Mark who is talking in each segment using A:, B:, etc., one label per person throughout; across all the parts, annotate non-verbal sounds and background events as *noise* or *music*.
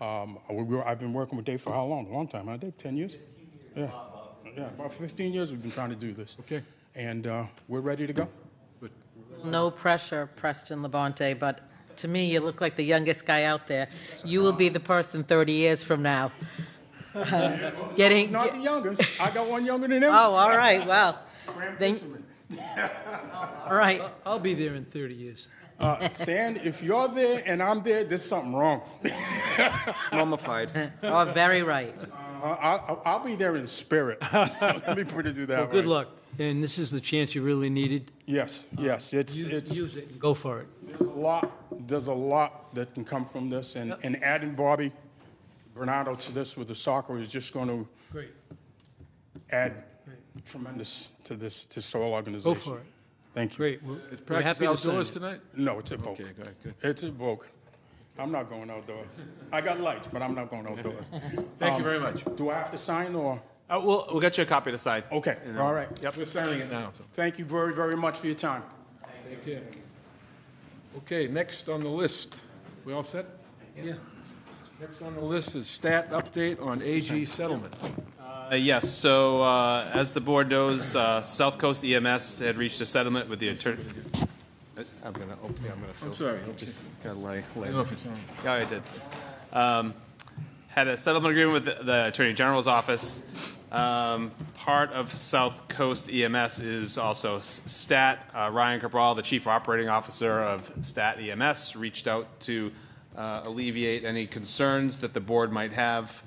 A: Um, we were, I've been working with Dave for how long? A long time, huh, Dave? 10 years? Yeah. Yeah, about 15 years we've been trying to do this.
B: Okay.
A: And uh, we're ready to go.
C: No pressure, Preston Labonte, but to me, you look like the youngest guy out there. You will be the person 30 years from now. *laughs* Getting,
A: He's not the youngest. I got one younger than him.
C: oh, all right, well. then- *laughs* All right,
B: I'll be there in 30 years.
A: Uh, Stan, if you're there and I'm there, there's something wrong.
D: *laughs* Mummified.
C: oh, very right.
A: Uh, I, I- I'll be there in spirit. Let me put it to that
B: Well, good
A: way.
B: luck, and this is the chance you really needed.
A: Yes, yes. It's,
B: Use
A: it's
B: use it and go for it.
A: a lot, there's a lot that can come from this. And, and adding Bobby Bernardo to this with the soccer is just going to
B: Great.
A: add tremendous to this, to soil organization.
B: Go for it.
A: Thank you.
B: Great. We're-
E: It's
B: we're
E: practice
B: happy to sign
E: outdoors
B: it.
E: tonight?
A: No, it's at Vogue.
E: Okay, good, good.
A: It's at Vogue. I'm not going outdoors. I got lights, but I'm not going outdoors.
E: Thank
A: Um,
E: you very much.
A: Do I have to sign or?
D: Uh, we'll, we'll get you a copy to sign.
A: Okay, all right.
E: We're signing it now. so.
A: Thank you very, very much for your time.
E: Take care. Okay, next on the list, we all set? Yeah. Next on the list is stat update on AG settlement.
D: Uh, Yes, so uh, as the board knows, uh, South Coast EMS had reached a settlement with the attorney. I'm gonna, oh, yeah, I'm gonna. fill-
E: sorry.
D: Just gotta lay,
E: I
D: lay.
E: don't know if it's on.
D: Yeah, I did. Um, had a settlement agreement with the- the Attorney General's office. Um, part of South Coast EMS is also S- STAT. Uh, Ryan Cabral, the Chief Operating Officer of STAT EMS, E reached out to uh, alleviate any concerns that the board might have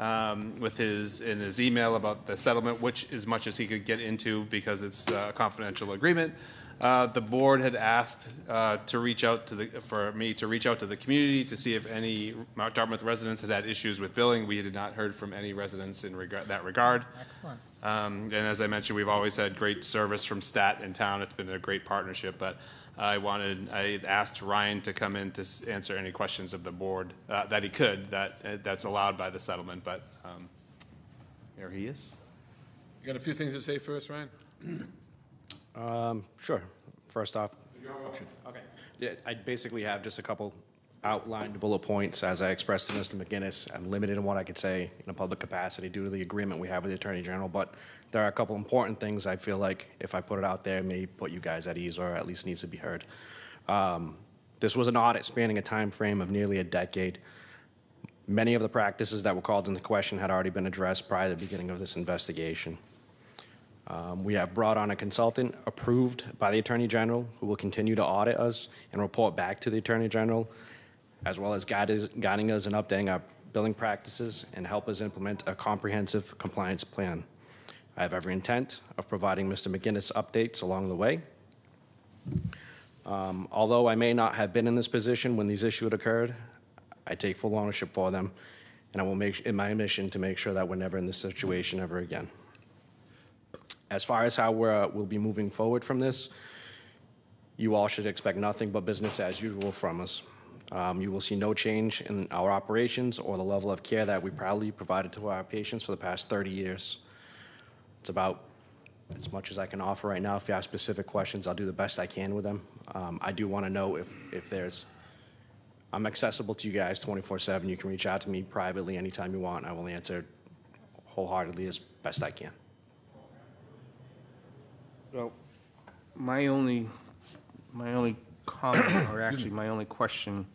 D: um, with his in his email about the settlement, which as much as he could get into because it's uh, a confidential agreement. Uh, the board had asked uh, to reach out to the for me to reach out to the community to see if any Mount Dartmouth residents had had issues with billing. We had not heard from any residents in regard that regard.
C: Excellent.
D: Um, and as I mentioned, we've always had great service from Stat in town. It's been a great partnership, but I wanted, I asked Ryan to come in to s- answer any questions of the board uh, that he could, that, uh, that's allowed by the settlement, but um, there he is.
E: You got a few things to say first, Ryan?
F: Sure. First off. Okay. Yeah, I basically have just a couple outlined bullet points, as I expressed to Mr. McGinnis. I'm limited in what I could say in a public capacity due to the agreement we have with the Attorney General, but there are a couple important things I feel like if I put it out there, may put you guys at ease or at least needs to be heard. Um, This was an audit spanning a time frame of nearly a decade. Many of the practices that were called into question had already been addressed prior to the beginning of this investigation. Um, We have brought on a consultant approved by the Attorney General who will continue to audit us and report back to the Attorney General, as well as guide us- guiding us and updating our billing practices and help us implement a comprehensive compliance plan. I have every intent of providing Mr. McGinnis updates along the way. Um, Although I may not have been in this position when these issues occurred, I take full ownership for them, and I will make, in my mission, to make sure that we're never in this situation ever again. As far as how we're, uh, we'll be moving forward from this, you all should expect nothing but business as usual from us. Um, You will see no change in our operations or the level of care that we proudly provided to our patients for the past 30 years. It's about as much as I can offer right now. If you have specific questions, I'll do the best I can with them. Um, I do want to know if, if there's, I'm accessible to you guys 24/7. You can reach out to me privately anytime you want. I will answer wholeheartedly as best I can.
G: Well, my only, my only comment, or actually my only question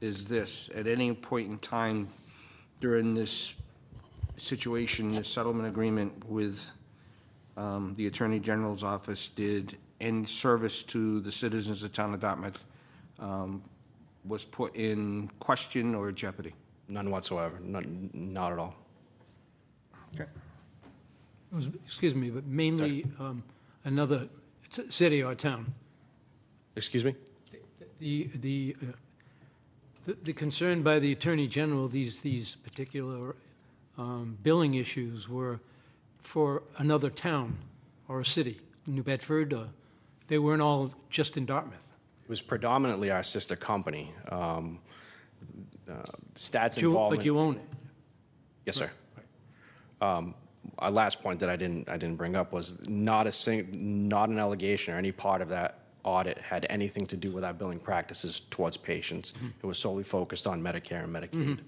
G: is this. At any point in time during this situation, this settlement agreement with um, the Attorney General's office, did any service to the citizens of town of Dartmouth um, was put in question or jeopardy?
F: None whatsoever. None, not at all.
B: It was- Excuse me, but mainly um, another c- city or town.
F: Excuse me?
B: The, the, uh, the- the concern by the Attorney General, these, these particular um, billing issues were for another town or a city, New Bedford, uh, they weren't all just in Dartmouth.
F: It was predominantly our sister company. Um, uh, Stats
B: But you-
F: involvement.
B: But you own it.
F: Yes, sir. Um, Our last point that I didn't, I didn't bring up was not a sing, not an allegation or any part of that audit had anything to do with our billing practices towards patients. It was solely focused on Medicare and Medicaid.